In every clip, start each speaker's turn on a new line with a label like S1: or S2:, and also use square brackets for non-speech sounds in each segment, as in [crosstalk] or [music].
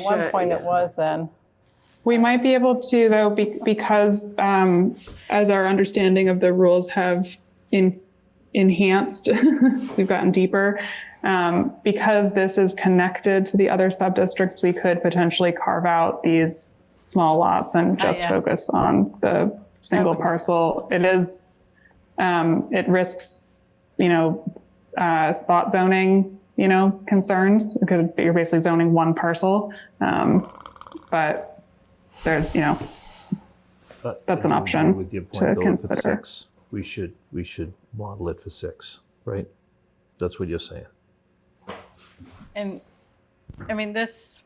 S1: At one point it was then.
S2: We might be able to though, be- because um, as our understanding of the rules have in, enhanced, [laughs] as we've gotten deeper, um, because this is connected to the other sub-districts, we could potentially carve out these small lots and just
S1: yeah.
S2: focus on the single parcel. It is, um, it risks, you know, s- uh, spot zoning, you know, concerns. Because you're basically zoning one parcel. Um, but there's, you know,
S3: But
S2: That's an
S3: I agree
S2: option
S3: With your
S2: to
S3: point, though, if
S2: consider.
S3: it's six, we should, we should model it for six, right? That's what you're saying.
S1: And, I mean, this,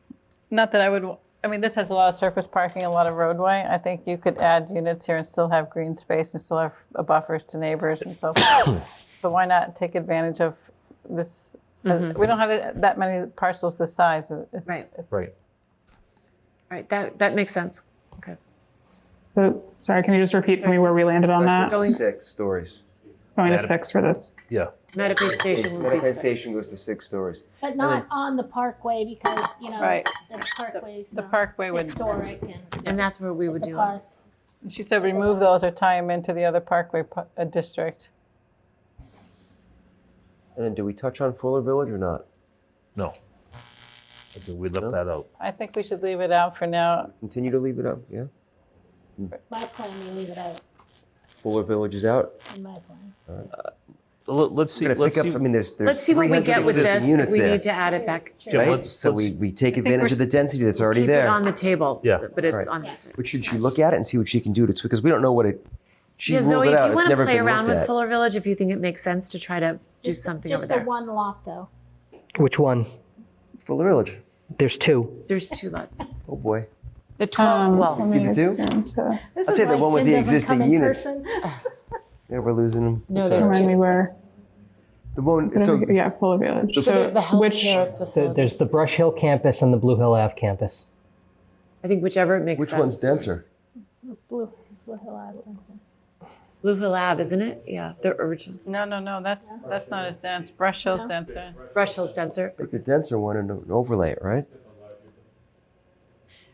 S1: not that I would, I mean, this has a lot of surface parking, a lot of roadway. I think you could add units here and still have green space and still have uh, buffers to neighbors and so forth. So why not take advantage of this? uh, We don't have that- that many parcels this size. It's-
S4: Right.
S3: Right.
S4: Right, that, that makes sense. Okay.
S2: the, sorry, can you just repeat for me where we landed on that?
S4: Going,
S5: Six stories.
S2: Going to six for this.
S3: Yeah.
S4: Medicaid station would be
S5: Medicaid
S4: six.
S5: station goes to six stories.
S6: But not on the parkway because, you know,
S1: Right.
S6: the parkway's
S1: The
S6: not
S1: parkway would,
S6: historic and
S4: And that's where we would
S6: the
S4: do it.
S6: park.
S1: she said remove those or tie them into the other parkway pu- uh, district.
S5: And then do we touch on Fuller Village or not?
S3: No. I think We left that out.
S1: I think we should leave it out for now.
S5: Continue to leave it up, yeah?
S6: My plan, you leave it out
S5: Fuller Village is out.
S6: in my plan.
S3: Let- Let's see,
S5: We're gonna
S3: let's
S5: pick
S3: see.
S5: up, I mean, there's, there's.
S4: Let's see what we get with
S3: 360
S4: this,
S5: 360
S4: if
S5: Units
S4: we
S5: there,
S4: need to add it back.
S3: Jim,
S5: right?
S3: let's-
S5: So we,
S3: let's-
S5: we take advantage of the density that's already
S4: Keep it
S5: there.
S4: on the table.
S3: Yeah.
S4: But it's
S5: Right.
S4: on the table.
S5: But should she look at it and see what she can do to, because we don't know what it, she
S4: Yeah,
S5: ruled
S4: Zoe,
S5: it
S4: if
S5: out,
S4: you
S5: it's
S4: want to
S5: never
S4: play
S5: been
S4: around
S5: looked
S4: with
S5: at.
S4: Fuller Village, if you think it makes sense to try to do something over
S6: Just
S4: there.
S6: the one lot though.
S7: Which one?
S5: Fuller Village,
S7: There's two.
S4: There's two lots.
S5: oh boy.
S4: The
S2: Um,
S4: twelve, well,
S5: See the two?
S2: two?
S6: This
S5: I'll
S6: is
S5: take the
S6: why
S5: one with
S6: Tim
S5: the
S6: doesn't
S5: existing
S6: come in
S5: units.
S6: person.
S5: [laughs] Yeah, we're losing them.
S4: No,
S5: It's
S4: there's
S5: all right.
S2: Remind me where,
S5: The one, so,
S2: yeah, Fuller Village.
S4: so there's the
S2: which-
S4: healthcare
S7: There-
S4: facility.
S7: There's the Brush Hill campus and the Blue Hill Ave campus.
S4: I think whichever it makes sense.
S5: which one's denser?
S6: Blue, Blue Hill Island.
S4: Blue Hill Lab, isn't it? Yeah, the original.
S1: No, no, no, that's, that's not as dense. Brush Hill's denser.
S4: Brush Hill's denser.
S5: Pick the denser one and overlay it, right?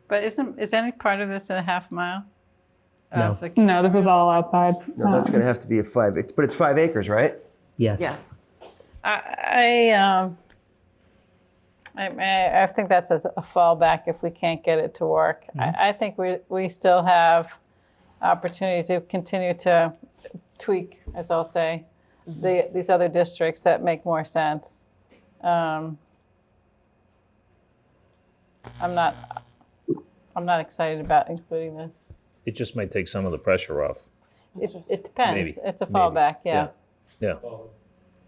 S1: But isn't, is any part of this a half mile?
S7: No.
S1: Of the-
S2: No, this is all outside. Um,
S5: No, that's gonna have to be a five, it's- but it's five acres, right?
S7: Yes.
S4: Yes.
S1: I, I, um, I, I I think that's as a fallback if we can't get it to work. I, I think we, we still have opportunity to continue to tweak, as I'll say, the, these other districts that make more sense. Um, I'm not, I'm not excited about including this.
S8: It just might take some of the pressure off.
S1: It, it depends.
S8: Maybe.
S1: It's a
S8: Maybe.
S1: fallback, yeah.
S8: Yeah.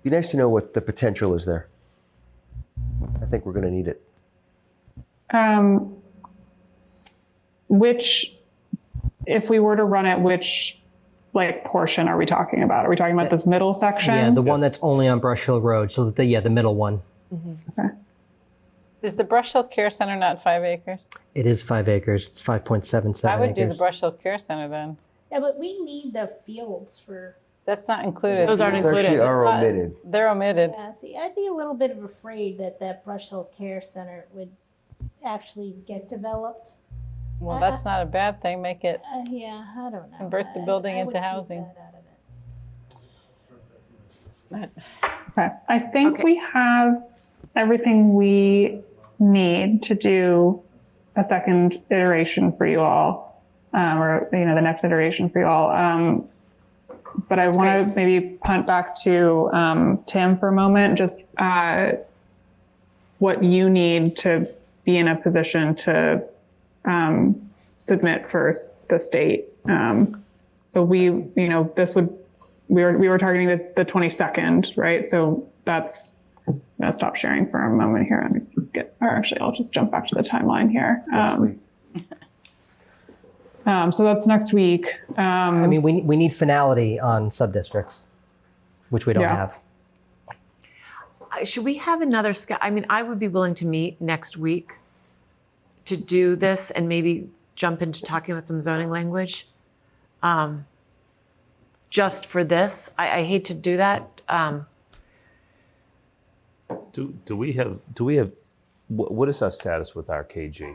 S5: Be nice to know what the potential is there. I think we're gonna need it.
S2: Um, which, if we were to run it, which like portion are we talking about? Are we talking about this middle section?
S7: Yeah, the one that's only on Brush Hill Road. So the yeah, the middle one.
S1: Is the Brush Hill Care Center not five acres?
S7: It is five acres. It's five point seven
S1: I
S7: seven
S1: would do the
S7: acres.
S1: Brush Hill Care Center then.
S6: Yeah, but we need the fields for,
S1: That's not included.
S4: Those aren't
S5: It's
S4: included.
S5: actually are
S1: not-
S5: omitted.
S1: They're omitted.
S6: yeah, see, I'd be a little bit of afraid that that Brush Hill Care Center would actually get developed.
S1: Well, that's not a bad thing. Make it,
S6: Uh, yeah, I don't know.
S1: Convert the
S6: I-
S1: building
S6: I
S1: into
S6: would keep
S1: housing.
S6: that out of it.
S2: Okay, I think
S4: Okay.
S2: we have everything we need to do a second iteration for you all, um, or, you know, the next iteration for you all. Um, but I want to maybe punt back to, um, Tim for a moment, just, uh, what you need to be in a position to, um, submit for s- the state. Um, so we, you know, this would we were we were targeting the, the 22nd, right? So that's I'm gonna stop sharing for a moment here and get or actually I'll just jump back to the timeline here. Um, [laughs] um, so that's next week. Um,
S7: I mean, we we need finality on subdistricts, which we don't
S2: Yeah.
S7: have.
S4: Uh, Should we have another, sc- I mean, I would be willing to meet next week to do this and maybe jump into talking about some zoning language. Um, Just for this, I, I hate to do that. Um,
S3: Do, do we have, do we have Wh- what is our status with our KG?